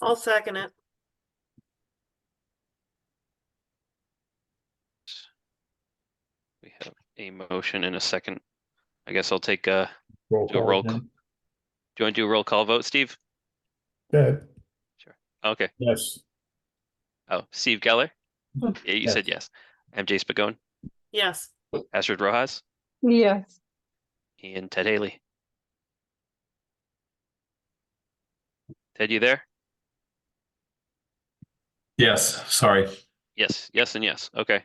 I'll second it. We have a motion and a second. I guess I'll take uh Roll Do a roll call. call. do you want to do a roll call vote, Steve? Good, Okay. yes. Oh, Steve Geller? Hmm. Yeah, you said yes. MJ Spagon, Yes, Astrid Rojas, Yes. and Ted Haley. Ted, you there? Yes, sorry. Yes, yes, and yes. Okay.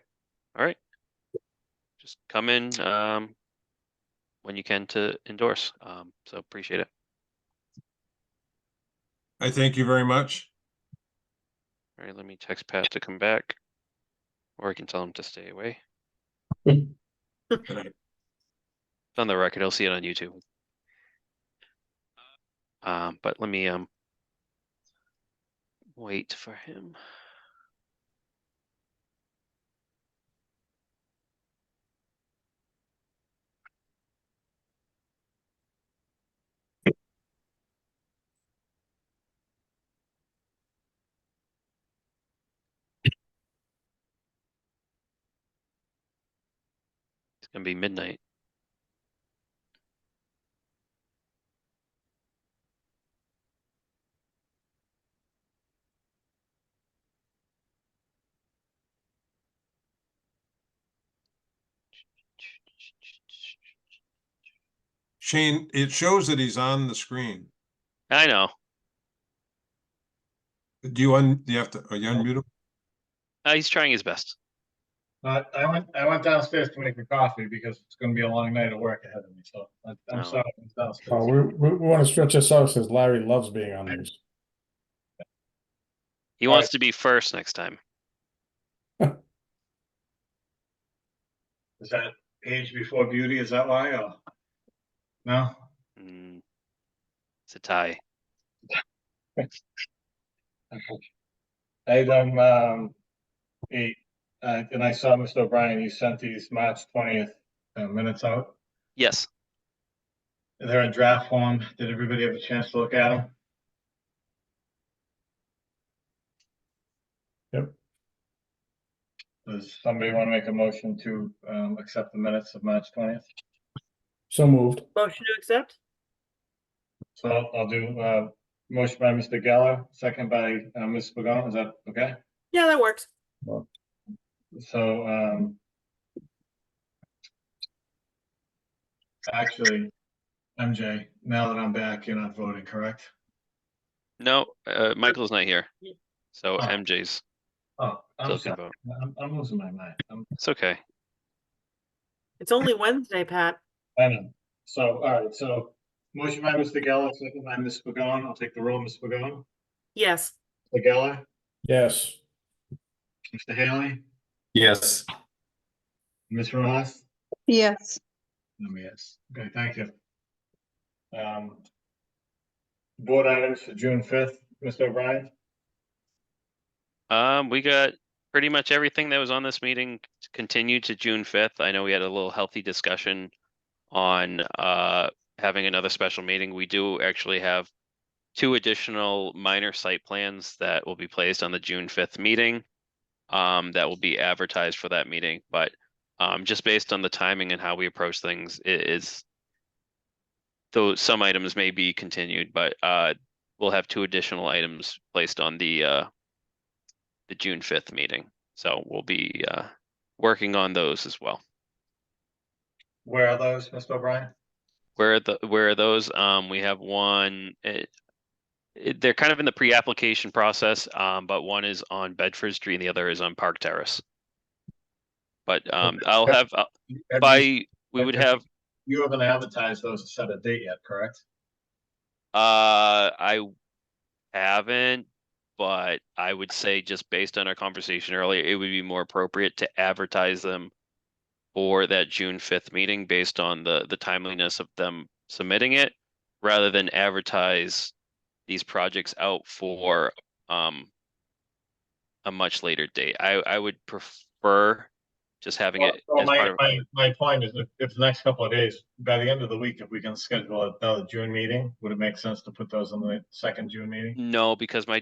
All right. Just come in um when you can to endorse. Um, so appreciate it. I thank you very much. All right, let me text Pat to come back. Or I can tell him to stay away. It's on the record. He'll see it on YouTube. Um, but let me um wait for him. It's gonna be midnight. Shane, it shows that he's on the screen. I know. Do you un, you have to, are you unmute him? Uh, he's trying his best. Uh, I went, I went downstairs to make a coffee because it's gonna be a long night of work ahead of me, so I- Oh. I'm sorry. I was downstairs. Oh, we, we, we wanna stretch this out since Larry loves being on these. He All wants to be first next time. Is that age before beauty? Is that why or? No? Mm. It's a tie. I done, um, eight, uh, and I saw Mr. O'Brien, you sent these March twentieth uh, minutes out. Yes. They're in draft form. Did everybody have a chance to look at them? Yep. Does somebody want to make a motion to, um, accept the minutes of March twentieth? So moved, motion to accept? So I'll- I'll do, uh, motion by Mr. Geller, second by, uh, Ms. Pagano, is that okay? Yeah, that works. So, um. Actually, MJ, now that I'm back, you're not voting, correct? No, uh, Michael's not here. Yeah. So Oh. MJ's Oh, I'm still can sorry, vote. I'm, I'm losing my mind, I'm, It's okay. It's only Wednesday, Pat. I know. Um, So, all right, so motion by Mr. Geller, second by Ms. Pagano, I'll take the roll, Ms. Pagano, Yes, Mr. Geller, yes. Mr. Haley, Yes. Ms. Ross. Yes. Um, yes, okay, thank you. Um. Board items for June fifth, Mr. O'Brien, Um, we got pretty much everything that was on this meeting t- continued to June fifth. I know we had a little healthy discussion on uh having another special meeting. We do actually have two additional minor site plans that will be placed on the June fifth meeting. Um, that will be advertised for that meeting, but um, just based on the timing and how we approach things, it is though some items may be continued, but uh, we'll have two additional items placed on the uh the June fifth meeting. So we'll be uh working on those as well. where are those, Mr. O'Brien? Where are the where are those? Um, we have one. It, it, they're kind of in the pre-application process, um, but one is on Bedford Street and the other is on Park Terrace. But um, I'll have uh, Have you- by we would Bedford. have. You haven't advertised those to set a date yet, correct? Uh, I haven't, but I would say just based on our conversation earlier, it would be more appropriate to advertise them for that June fifth meeting based on the, the timeliness of them submitting it, rather than advertise these projects out for, um, a much later date. I, I would prefer just having it Well, as part my, of, my, my point is if, if the next couple of days, by the end of the week, if we can schedule another June meeting, would it make sense to put those on the second June meeting? no, because my